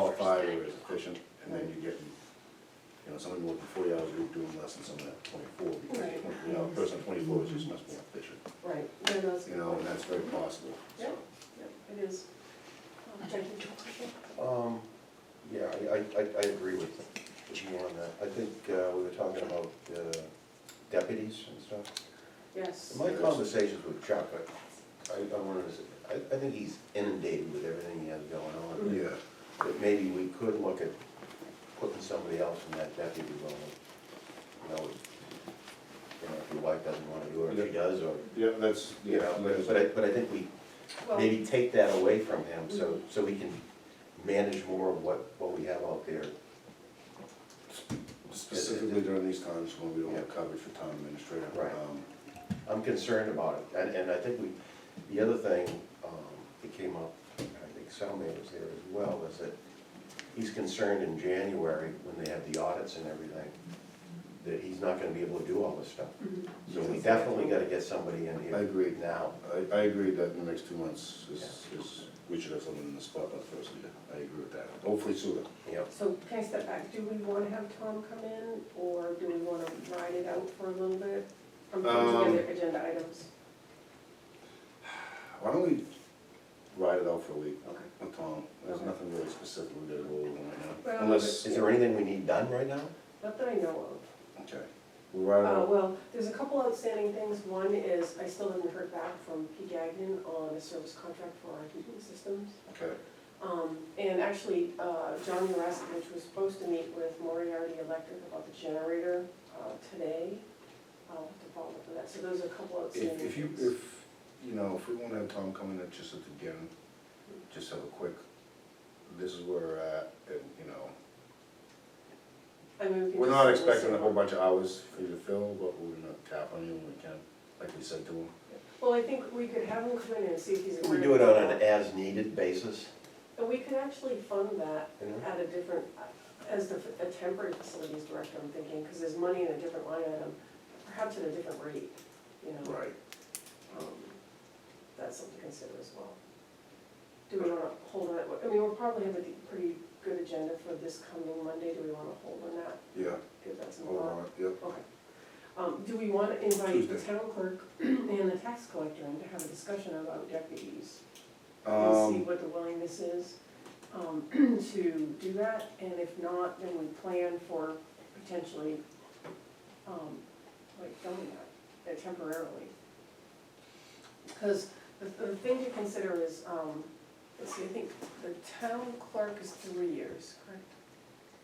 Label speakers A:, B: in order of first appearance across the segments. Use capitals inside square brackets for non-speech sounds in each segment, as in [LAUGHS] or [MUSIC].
A: qualified or is efficient, and then you get, you know, somebody working forty hours a week doing less than someone at twenty-four, because the
B: Right.
A: twenty, hour person at twenty-four is just much more efficient,
B: Right, no, no, it's.
A: you know, and that's very possible. so.
B: Yep, yep, it is. Um, thank you, George.
C: Um, yeah, I, I, I I agree with, with you on that. I think, uh, we were talking about uh, deputies and stuff.
B: Yes,
C: My conversations with Chuck, I, I I wanted to, say, I, I think he's inundated with everything he has going on.
A: Yeah,
C: But maybe we could look at putting somebody else in that deputy role. You know, you know, if your wife doesn't wanna do it, or if she does, or,
A: yeah, that's, yeah,
C: you know, but,
A: that's-
C: but I, but I think we
B: well,
C: maybe take that away from him, so, so we can manage more of what, what we have out there.
A: specifically during these times when we don't have coverage for town administrator.
C: Right.
A: um,
C: I'm concerned about it, and, and I think we, the other thing, um, that came up, and I think Salma was there as well, is that he's concerned in January, when they have the audits and everything, that he's not gonna be able to do all this stuff.
B: mhm,
C: So we definitely gotta get somebody in here.
A: I agree.
C: Now,
A: I, I agree that in the next two months is, is, we should have someone in the spot by the first of the year. I agree with that, hopefully sooner.
C: you know,
B: So can I step back, do we wanna have Tom come in, or do we wanna ride it out for a little bit? I'm
A: Um,
B: putting together agenda items,
A: Why don't we ride it out for a week
B: okay.
A: with Tom? There's
B: Okay.
A: nothing really specifically that we're holding right now.
B: Well,
A: Unless,
C: is there anything we need done right now?
B: Not that I know of.
A: okay, we'll ride it
B: Uh,
A: out.
B: well, there's a couple outstanding things. One is I still haven't heard back from P. Gagnon on a service contract for our heating systems.
A: Okay,
B: Um, and actually, uh, John Uresk, which was supposed to meet with Moriarty Electric about the generator, uh, today. I'll have to follow up with that. So those are a couple outstanding
A: if, if you,
B: things.
A: if, you know, if we wanna have Tom come in at just at the beginning, just have a quick, this is where we're at, and, you know,
B: I mean, we could
A: We're
B: just
A: not
B: listen.
A: expecting a whole bunch of hours for you to fill, but we're gonna tap on you when we can, like we said to him.
B: Well, I think we could have him come in and see if he's.
C: Can we do it on an as-needed basis?
A: e-
B: And we could actually fund that
C: you know?
B: at a different, as the a temporary facilities director, I'm thinking, because there's money in a different line item, perhaps at a different rate, you know?
A: Right.
B: Um, That's something to consider as well. Do we want to hold on, I mean, we'll probably have a pretty good agenda for this coming Monday, do we want to hold on that,
A: Yeah,
B: give that some
A: hold
B: thought?
A: on, yep.
B: Okay. Um, do we want to invite the
A: Tuesday.
B: town clerk [CLEARS THROAT] and the tax collector in to have a discussion about deputies? and see
A: Um,
B: what the willingness is um, [CLEARS THROAT] to do that, and if not, then we plan for potentially, um, like, filling that uh, temporarily. Because the, the thing to consider is, um, let's see, I think the town clerk is three years, correct?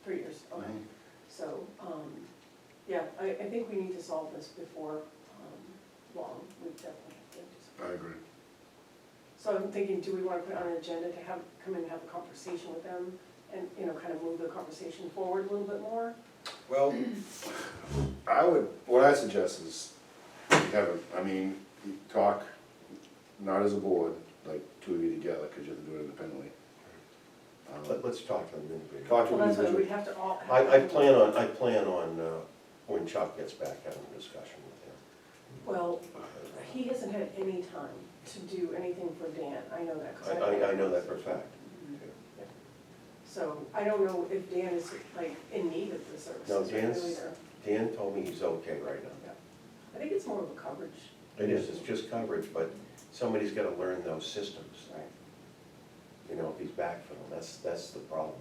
B: Three years, okay.
A: Mhm.
B: So, um, yeah, I, I think we need to solve this before, um, long, we definitely have to do something.
A: I agree.
B: So I'm thinking, do we want to put on an agenda to have, come in and have a conversation with them and, you know, kind of move the conversation forward a little bit more?
A: Well, I would, what I suggest is, you have, a- I mean, you talk, not as a board, like two of you together, cause you have to do it independently. Um,
C: Let, let's talk to them individually.
A: Talk to
B: Well,
A: an
B: that's what
A: individual.
B: we'd have to all.
C: I, I plan on, I plan on, uh, when Chuck gets back, having a discussion with
B: Well, he hasn't had any time to do anything for Dan, I know that, because
C: him.
B: I.
C: I, I, I know that for a fact.
B: So I don't know if Dan is like in need of the services.
C: No,
B: right now
C: Dan's-
B: either.
C: Dan told me he's okay right now.
B: I think it's more of a coverage.
C: It is, it's just coverage, but somebody's gotta learn those systems,
B: Right.
C: you know, if he's back for them, that's, that's the problem,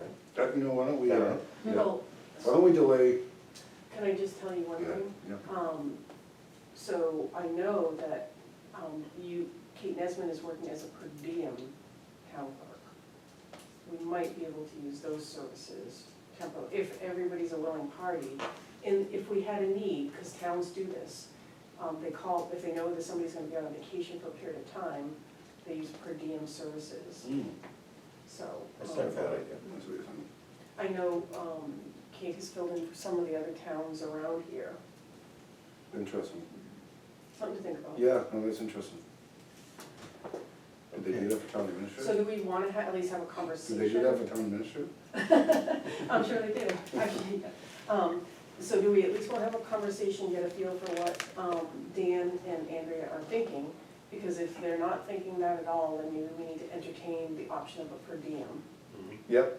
C: right?
A: Uh, You know, why don't we, uh,
C: Yeah.
A: yeah.
B: Well,
A: why don't we delay?
B: can I just tell you one
A: Yeah,
B: thing?
A: yeah.
B: Um, so I know that, um, you, Kate Nesman is working as a per diem town clerk. We might be able to use those services tempo, if everybody's a willing party. And if we had a need, because towns do this, um, they call, if they know that somebody's gonna be on vacation for a period of time, they use per diem services, so.
C: That's not a
B: um,
C: bad idea.
A: That's what you're saying.
B: I know, um, Kate has filled in for some of the other towns around here,
A: Interesting.
B: something to think about.
A: Yeah, no, that's interesting. Did they do that for town administrator?
B: So do we wanna ha- at least have a
A: Did
B: conversation?
A: they do that for town administrator?
B: [LAUGHS] I'm sure they do, actually. Um, so do we at least wanna have a conversation, get a feel for what, um, Dan and Andrea are thinking? Because if they're not thinking that at all, then maybe we need to entertain the option of a per diem.
A: Yep,